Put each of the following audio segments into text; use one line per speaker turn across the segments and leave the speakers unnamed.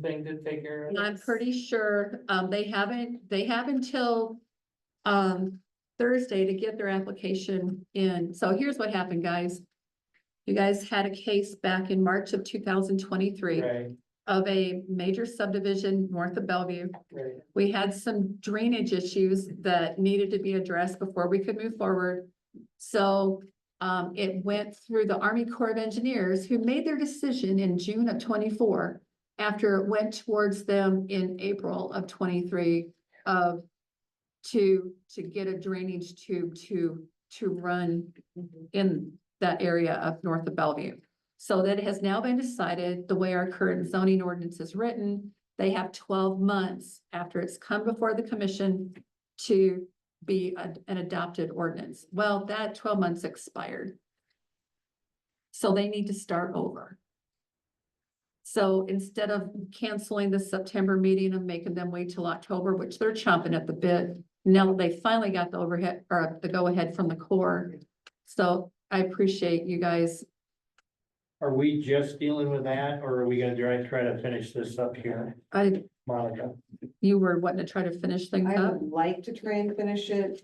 thing to take care of.
And I'm pretty sure, um, they haven't, they have until, um, Thursday to get their application in. So here's what happened, guys. You guys had a case back in March of two thousand twenty-three
Right,
of a major subdivision north of Bellevue.
right.
We had some drainage issues that needed to be addressed before we could move forward. So um, it went through the Army Corps of Engineers, who made their decision in June of twenty-four after it went towards them in April of twenty-three of to, to get a drainage tube to, to run in that area of north of Bellevue. So that has now been decided, the way our current zoning ordinance is written, they have twelve months after it's come before the commission to be a- an adopted ordinance. Well, that twelve months expired. So they need to start over. So instead of canceling the September meeting and making them wait till October, which they're chomping at the bit, now they finally got the overhead or the go-ahead from the core. So I appreciate you guys.
Are we just dealing with that, or are we gonna try, try to finish this up here,
I,
Monica?
you were wanting to try to finish things
I
up
would like to try and finish it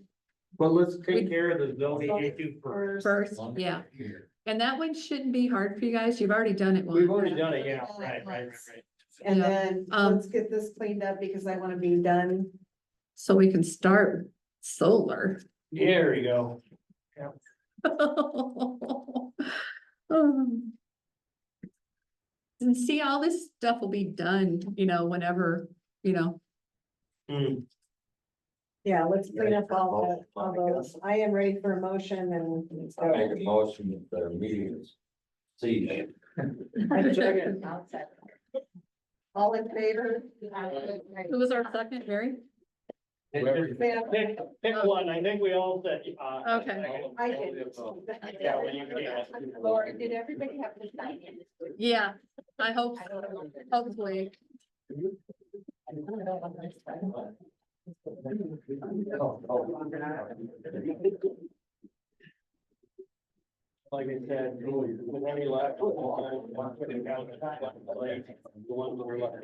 Well, let's
We-
take care of the zoning
Sorry.
issue first.
first.
first, yeah. And that one shouldn't be hard for you guys. You've already done it
We've
once.
already done it, yeah, right, right, right, right.
And
Yeah.
then
Um,
let's get this cleaned up because I wanna be done.
So we can start solar.
There we go.
Um, And see, all this stuff will be done, you know, whenever, you know,
Hmm,
Yeah, let's clean up all the, all
Oh, my God.
those. I am ready for a motion and. let's
I Make a
go.
motion that their meeting is ceased.
Second.
All in favor?
Who was our second, Mary?
Pick pick one, I think we all said, uh.
Okay.
I did.
Yeah, well, you can, yeah.
Laura, did everybody have to sign in?
Yeah, I hope,
I don't know.
hopefully.
Like I said, with any left, the ones that were left.